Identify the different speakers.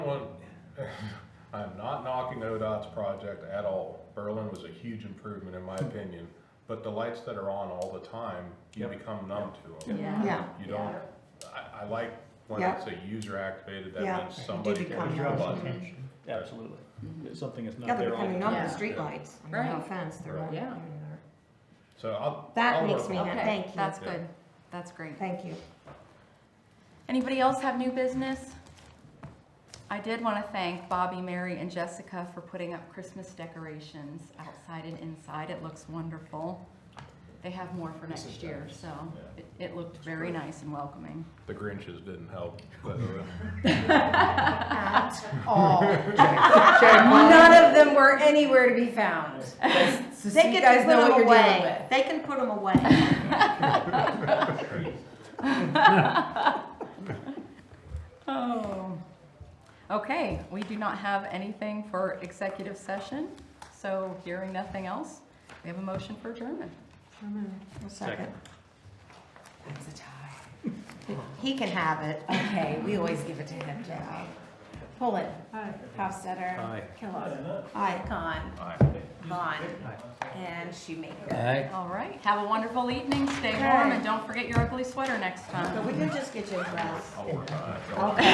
Speaker 1: Berlin, I'm not knocking ODOT's project at all. Berlin was a huge improvement in my
Speaker 2: Hmm.
Speaker 1: opinion, but the lights that are on all the time, you
Speaker 3: Yep.
Speaker 1: become numb to them.
Speaker 4: Yeah.
Speaker 2: Yeah.
Speaker 1: You don't, I, I like when
Speaker 2: Yeah.
Speaker 1: it's a user activated, that
Speaker 2: Yeah.
Speaker 1: means somebody
Speaker 2: become
Speaker 1: pushed the
Speaker 2: numb.
Speaker 1: button.
Speaker 3: Absolutely. It's Something that's
Speaker 2: Yeah,
Speaker 3: not
Speaker 2: they're
Speaker 3: there all
Speaker 2: becoming
Speaker 3: the
Speaker 2: numb
Speaker 3: time.
Speaker 2: to
Speaker 4: Yeah.
Speaker 2: streetlights. I mean, no
Speaker 4: Right.
Speaker 2: offense, they're
Speaker 1: Right.
Speaker 2: all
Speaker 4: Yeah.
Speaker 1: So I'll.
Speaker 2: That
Speaker 1: I'll
Speaker 2: makes
Speaker 1: work
Speaker 2: me
Speaker 1: on
Speaker 2: happy.
Speaker 1: it.
Speaker 2: Thank
Speaker 4: Okay,
Speaker 2: you.
Speaker 4: that's
Speaker 1: Yeah.
Speaker 4: good. That's great.
Speaker 2: Thank you.
Speaker 4: Anybody else have new business? I did want to thank Bobby, Mary, and Jessica for putting up Christmas decorations outside and inside. It looks wonderful. They have more for
Speaker 3: This
Speaker 4: next
Speaker 3: is
Speaker 4: year,
Speaker 3: nice.
Speaker 4: so it, it looked very
Speaker 1: great.
Speaker 4: nice and welcoming.
Speaker 1: The Grinches didn't help. but, uh,
Speaker 5: None of them were anywhere to be found. So so
Speaker 2: They
Speaker 5: you
Speaker 2: can
Speaker 5: guys
Speaker 2: put
Speaker 5: know
Speaker 2: them
Speaker 5: what you're dealing
Speaker 2: away.
Speaker 5: with.
Speaker 2: They can put them away.
Speaker 4: Oh. Okay, we do not have anything for executive session, so hearing nothing else, we have a motion for adjournment.
Speaker 2: A second.
Speaker 5: That's a tie.
Speaker 2: He can have it.
Speaker 5: Okay, we always give it to him, Joe. Pullen. Hofstadter.
Speaker 3: Aye.
Speaker 5: Kellogg.
Speaker 2: Aye.
Speaker 5: Khan.
Speaker 1: I-
Speaker 5: Vaughn. And Shoemaker.
Speaker 4: All right, have a wonderful evening, stay warm, and don't forget your ugly sweater next time.
Speaker 2: But we can just get you a glass.
Speaker 1: I'll work on it.
Speaker 2: Okay.